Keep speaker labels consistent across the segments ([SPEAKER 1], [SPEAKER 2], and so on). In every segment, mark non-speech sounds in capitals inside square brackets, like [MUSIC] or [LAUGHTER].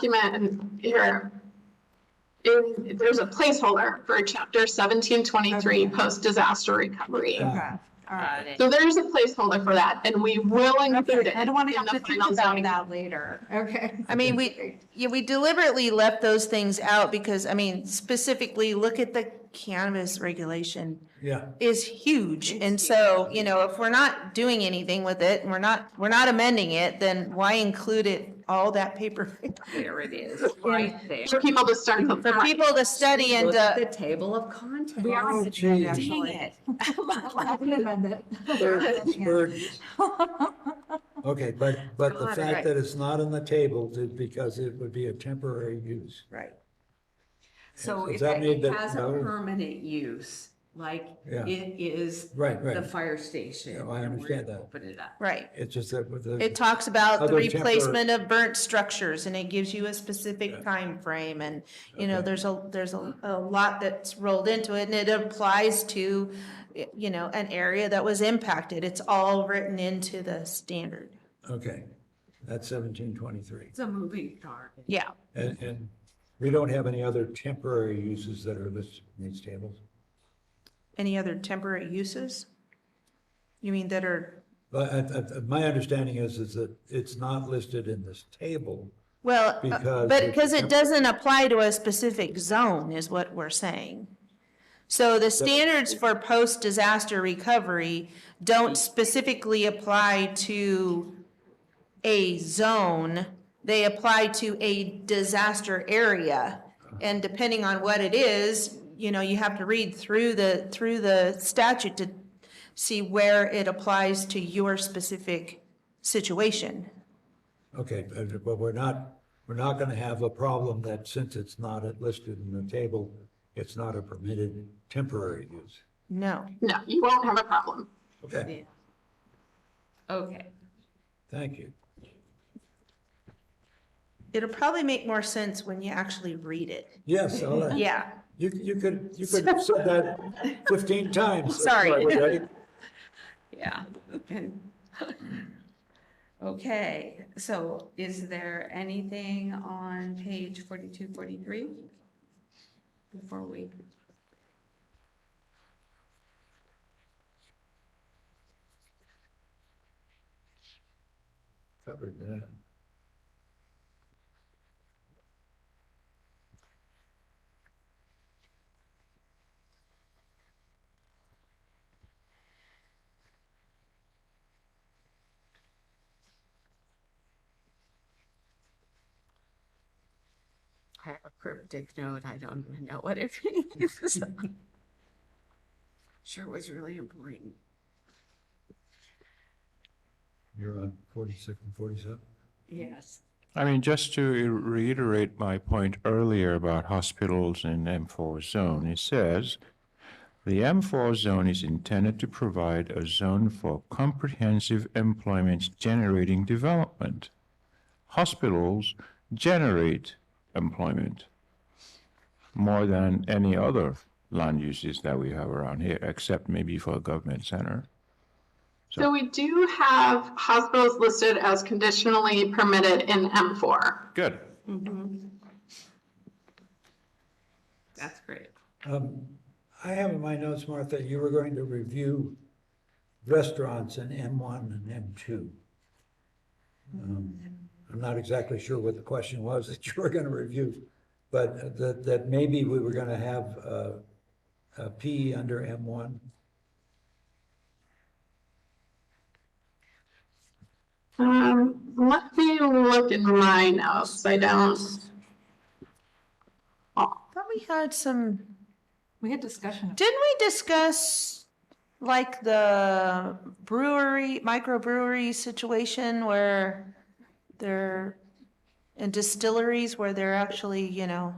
[SPEAKER 1] document here. In, there's a placeholder for chapter seventeen twenty-three, post-disaster recovery.
[SPEAKER 2] Yeah.
[SPEAKER 3] Okay, all right.
[SPEAKER 1] So there's a placeholder for that and we will include it.
[SPEAKER 3] I don't want to
[SPEAKER 1] in
[SPEAKER 3] have
[SPEAKER 1] the
[SPEAKER 3] to think
[SPEAKER 1] final
[SPEAKER 3] about
[SPEAKER 1] zoning.
[SPEAKER 3] that later. Okay.
[SPEAKER 4] I mean, we, yeah, we deliberately left those things out because, I mean, specifically, look at the cannabis regulation
[SPEAKER 2] Yeah,
[SPEAKER 4] is huge. And so, you know, if we're not doing anything with it, and we're not, we're not amending it, then why include it, all that paper? [LAUGHS]
[SPEAKER 5] There it is, right there.
[SPEAKER 1] For people to
[SPEAKER 3] Mm-hmm.
[SPEAKER 1] start.
[SPEAKER 4] For people to study and,
[SPEAKER 5] Look at
[SPEAKER 4] uh,
[SPEAKER 5] the table of contents.
[SPEAKER 3] We
[SPEAKER 2] Oh,
[SPEAKER 3] are.
[SPEAKER 2] geez.
[SPEAKER 3] Dang it. [LAUGHS] I would amend it. [LAUGHS]
[SPEAKER 2] Burden- burdens. Okay, but, but the
[SPEAKER 4] Got it.
[SPEAKER 2] fact that it's not on the table is because it would be a temporary use.
[SPEAKER 4] right,
[SPEAKER 5] So
[SPEAKER 2] Does
[SPEAKER 5] if
[SPEAKER 2] that mean
[SPEAKER 5] it
[SPEAKER 2] that-
[SPEAKER 5] has a
[SPEAKER 2] no?
[SPEAKER 5] permanent use, like
[SPEAKER 2] Yeah.
[SPEAKER 5] it is
[SPEAKER 2] Right,
[SPEAKER 5] the
[SPEAKER 2] right.
[SPEAKER 5] fire station.
[SPEAKER 2] Yeah, I
[SPEAKER 5] and we're gonna
[SPEAKER 2] understand that.
[SPEAKER 5] Open it up.
[SPEAKER 4] right.
[SPEAKER 2] It's just that with the.
[SPEAKER 4] It talks about the
[SPEAKER 2] Other temporary-
[SPEAKER 4] replacement of burnt structures and it gives you a specific time frame, and, you know,
[SPEAKER 2] Okay.
[SPEAKER 4] there's a, there's a, a lot that's rolled into it and it applies to, y- you know, an area that was impacted. It's all written into the standard.
[SPEAKER 2] Okay, that's seventeen twenty-three.
[SPEAKER 5] It's a moving target.
[SPEAKER 4] Yeah.
[SPEAKER 2] And, and we don't have any other temporary uses that are listed in these tables?
[SPEAKER 4] Any other temporary uses? You mean that are,
[SPEAKER 2] But I, I, my understanding is, is that it's not listed in this table.
[SPEAKER 4] well, uh,
[SPEAKER 2] Because
[SPEAKER 4] but
[SPEAKER 2] it's
[SPEAKER 4] because
[SPEAKER 2] a
[SPEAKER 4] it
[SPEAKER 2] temp-
[SPEAKER 4] doesn't apply to a specific zone is what we're saying. So the standards for post-disaster recovery don't specifically apply to a zone. They apply to a disaster area. And depending on what it is, you know, you have to read through the, through the statute to see where it applies to your specific situation.
[SPEAKER 2] Okay, but but we're not, we're not gonna have a problem that since it's not listed in the table, it's not a permitted temporary use.
[SPEAKER 4] No.
[SPEAKER 1] No, you won't have a problem.
[SPEAKER 2] Okay,
[SPEAKER 5] Okay,
[SPEAKER 2] thank you.
[SPEAKER 4] It'll probably make more sense when you actually read it.
[SPEAKER 2] Yes, all right.
[SPEAKER 4] Yeah.
[SPEAKER 2] You, you could, you could have said that fifteen times.
[SPEAKER 4] [LAUGHS] Sorry.
[SPEAKER 2] Right?
[SPEAKER 5] [LAUGHS] yeah. Okay, so is there anything on page forty-two, forty-three? Before we,
[SPEAKER 2] Covered that.
[SPEAKER 5] I have a cryptic note, I don't even know what it [LAUGHS] is. Sure was really important.
[SPEAKER 2] You're on forty-six and forty-seven?
[SPEAKER 5] Yes.
[SPEAKER 6] I mean, just to reiterate my point earlier about hospitals in M4 zone, it says, "The M4 zone is intended to provide a zone for comprehensive employment-generating development. Hospitals generate employment more than any other land uses that we have around here, except maybe for a government center."
[SPEAKER 1] So we do have hospitals listed as conditionally permitted in M four.
[SPEAKER 6] Good.
[SPEAKER 5] That's great.
[SPEAKER 2] Um, I have in my notes, Martha, you were going to review restaurants in M one and M two. Um, I'm not exactly sure what the question was [LAUGHS] that you were gonna review, but uh, that, that maybe we were gonna have, uh, a P under M one.
[SPEAKER 1] Um, let me look in my notes. I don't.
[SPEAKER 4] Thought we had some,
[SPEAKER 3] We had discussion.
[SPEAKER 4] didn't we discuss like the brewery, microbrewery situation where they're, and distilleries where they're actually, you know,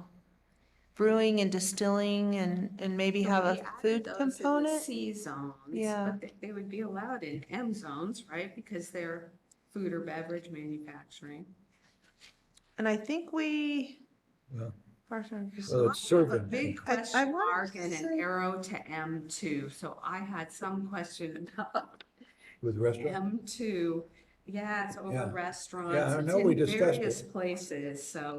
[SPEAKER 4] brewing and distilling and, and maybe have a
[SPEAKER 5] We added
[SPEAKER 4] food
[SPEAKER 5] those in the
[SPEAKER 4] component?
[SPEAKER 5] C zones.
[SPEAKER 4] Yeah.
[SPEAKER 5] But they- they would be allowed in M zones, right? Because they're food or beverage manufacturing.
[SPEAKER 4] And I think we.
[SPEAKER 2] Well-
[SPEAKER 4] Parson-
[SPEAKER 2] Well, it's
[SPEAKER 5] A
[SPEAKER 2] serving.
[SPEAKER 5] big
[SPEAKER 4] I- I
[SPEAKER 5] question
[SPEAKER 4] wanted
[SPEAKER 5] mark
[SPEAKER 4] to
[SPEAKER 5] and an
[SPEAKER 4] say-
[SPEAKER 5] arrow to M two. So I had some question about
[SPEAKER 2] With restaurant,
[SPEAKER 5] M two yeah, it's over
[SPEAKER 2] Yeah.
[SPEAKER 5] restaurants.
[SPEAKER 2] Yeah, I
[SPEAKER 5] it's
[SPEAKER 2] know
[SPEAKER 5] in
[SPEAKER 2] we discussed
[SPEAKER 5] Various
[SPEAKER 2] it.
[SPEAKER 5] places, so.